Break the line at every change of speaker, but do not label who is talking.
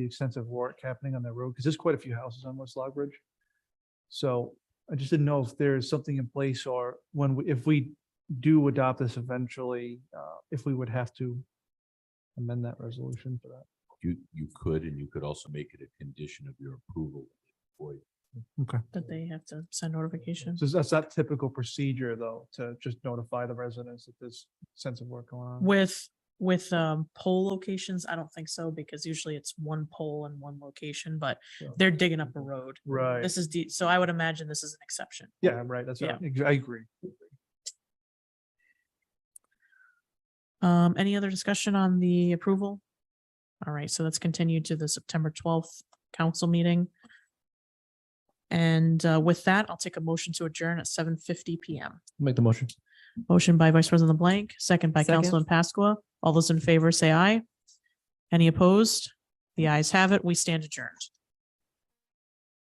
the extensive work happening on that road, because there's quite a few houses on West Log Bridge. So I just didn't know if there's something in place or when, we- if we do adopt this eventually, uh, if we would have to amend that resolution for that.
You, you could, and you could also make it a condition of your approval for you.
That they have to send notification.
So that's not typical procedure, though, to just notify the residents that there's sense of work going on.
With, with um pole locations, I don't think so, because usually it's one pole in one location, but
Yeah.
they're digging up a road.
Mm-hmm. Right.
This is deep, so I would imagine this is an exception.
Yeah, I'm right. That's, what I I agree.
Um, any other discussion on the approval? All right, so that's continued to the September twelfth council meeting. And uh, with that, I'll take a motion to adjourn at seven fifty PM.
Make the motion.
Motion by Vice President LeBlanc, second by
Second.
Councilman Pasqua. All those in favor say aye. Any opposed? The ayes have it. We stand adjourned.